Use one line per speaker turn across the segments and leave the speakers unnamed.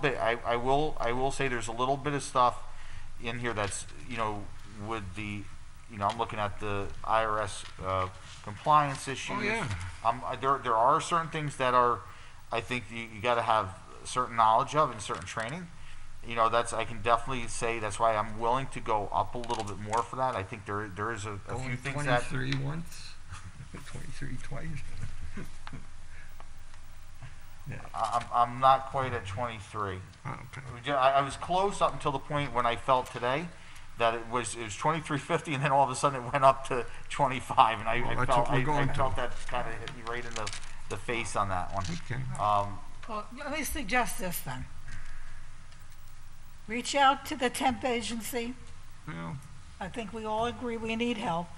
bit, I, I will, I will say there's a little bit of stuff in here that's, you know, with the, you know, I'm looking at the IRS, uh, compliance issues.
Oh, yeah.
Um, I- there, there are certain things that are, I think you, you gotta have certain knowledge of and certain training. You know, that's, I can definitely say, that's why I'm willing to go up a little bit more for that. I think there, there is a, a few
Only
things that.
Twenty-three once, twenty-three twice. Yeah,
I- I'm, I'm not quite at 23.
oh, okay.
We ju- I, I was close up until the point when I felt today that it was it was 23.50, and then all of a sudden it went up to 25, and I,
Well,
I
that's
felt
what we're
I,
going
I
to.
felt that kind of hit me right in the, the face on that one.
Okay.
Um,
Well, let me suggest this then. Reach out to the temp agency.
Well, oh,
I think we all agree we need help.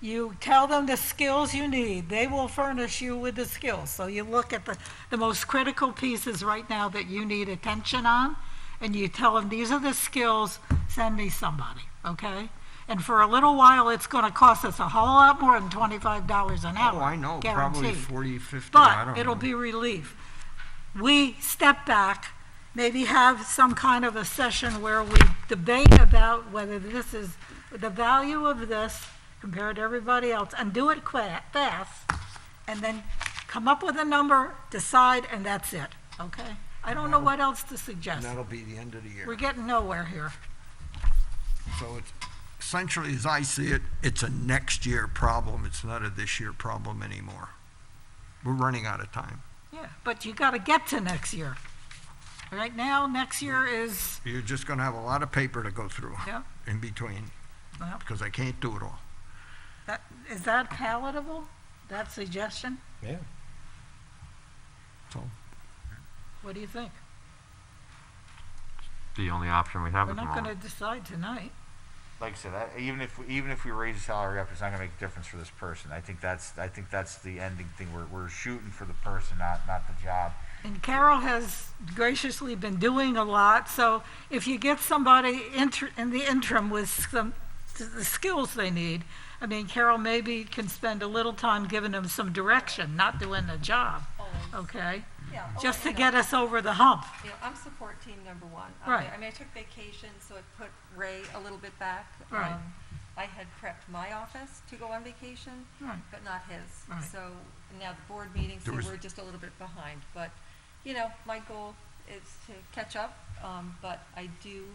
You tell them the skills you need. They will furnish you with the skills. So you look at the, the most critical pieces right now that you need attention on, and you tell them, these are the skills, send me somebody, okay? And for a little while, it's gonna cost us a whole lot more than twenty-five dollars an hour.
oh, I know, probably
guaranteed.
forty, fifty, I don't
But
know.
it'll be relief. We step back, maybe have some kind of a session where we debate about whether this is the value of this compared to everybody else, and do it qua- fast, and then come up with a number, decide, and that's it, okay? I don't know what else to
And
suggest.
that'll be the end of the
We're
year.
getting nowhere here.
So it's, essentially, as I see it, it's a next year problem. It's not a this year problem anymore. We're running out of time.
Yeah, but you gotta get to next year. Right now, next year is,
You're just gonna have a lot of paper to go through
yeah, Uh-huh.
in between,
well,
because I can't do it all.
that, is that palatable, that suggestion?
Yeah.
So,
What do you think?
the only option we have
We're
at the
not
moment.
gonna decide tonight.
like I said, I, even if we, even if we raise the salary up, it's not going to make a difference for this person. I think that's I think that's the ending thing. We're, we're shooting for the person, not not the job.
And Carol has graciously been doing a lot, so if you get somebody inter, in the interim with some, the skills they need, I mean, Carol maybe can spend a little time giving them some direction, not doing the job, okay?
Yeah, oh,
Just to
you know,
get us over the hump.
you know, I'm support team number one. I'm
Right.
there. I mean, I took vacation, so it put Ray a little bit back.
Right.
Um, I had prepped my office to go on vacation,
Right.
but not his.
Right.
So now the board meeting, so
There was-
we're just a little bit behind. But, you know, my goal is to catch up, um, but I do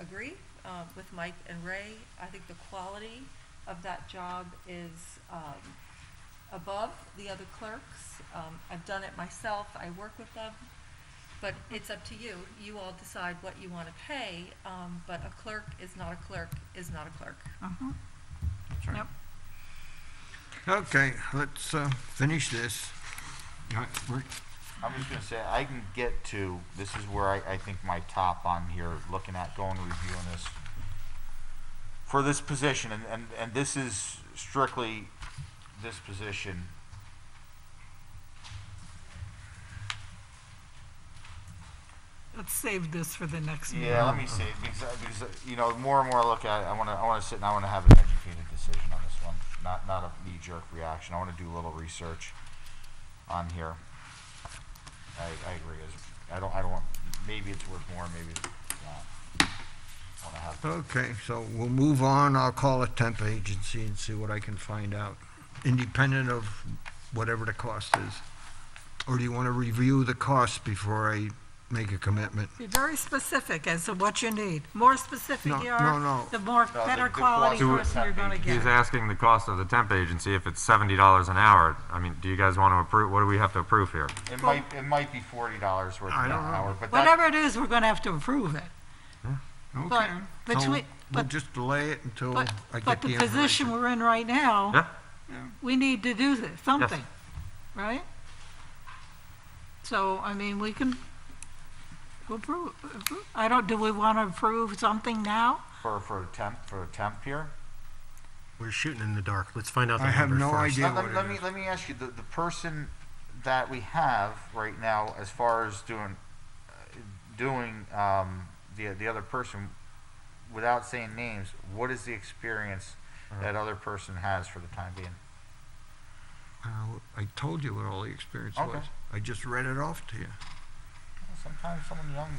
agree, uh, with Mike and Ray. I think the quality of that job is, um, above the other clerks. Um, I've done it myself, I work with them, but it's up to you. You all decide what you want to pay, um, but a clerk is not a clerk is not a clerk.
Mhm. Yep.
okay, let's, uh, finish this. All right, we're-
I'm just gonna say I can get to this is where I, I think my top on here looking at going and reviewing this for this position and, and, and this is strictly this position.
Let's save this for the next meeting.
Yeah, let me see because, I- because uh, you know the more and more I look at it, I wanna I wanna sit and I wanna have an educated decision on this one, not not a knee jerk reaction. I wanna do a little research on here. I, I agree. It's- I don't I don't want maybe it's worth more, maybe it's not. I wanna have
Okay, so we'll move on. I'll call a temp agency and see what I can find out, independent of whatever the cost is. Or do you want to review the cost before I make a commitment?
Be very specific as to what you need. More specific
No,
you
no,
are,
no.
the more,
the-
better
the
quality
quality
is
person you're gonna
not
get.
He's asking the cost of the temp agency if it's seventy dollars an hour. I mean, do you guys want to approve? What do we have to approve here?
It might, it might be forty dollars worth
I
an
don't know.
hour, but that,
Whatever it is, we're gonna have to approve it. But
Okay.
between-
So We'll
but-
just delay it until I get the
But, but the position
information.
we're in right
Yeah.
now, we need to do this- something, right? So, I mean, we can, we'll approve, approve- I don't, do we want to approve something now?
for, for a temp, for a temp here.
We're shooting in the dark. Let's find out the
I have
number
no
first.
idea
Let,
what
let- let
it
me,
is.
let me ask you, the, the person that we have right now, as far as doing, uh, doing, um, the, the other person, without saying names, what is the experience
Uh-huh.
that other person has for the time being?
Uh, I told you what all the experience
Okay.
was. I just read it off to you.
That's sometimes someone young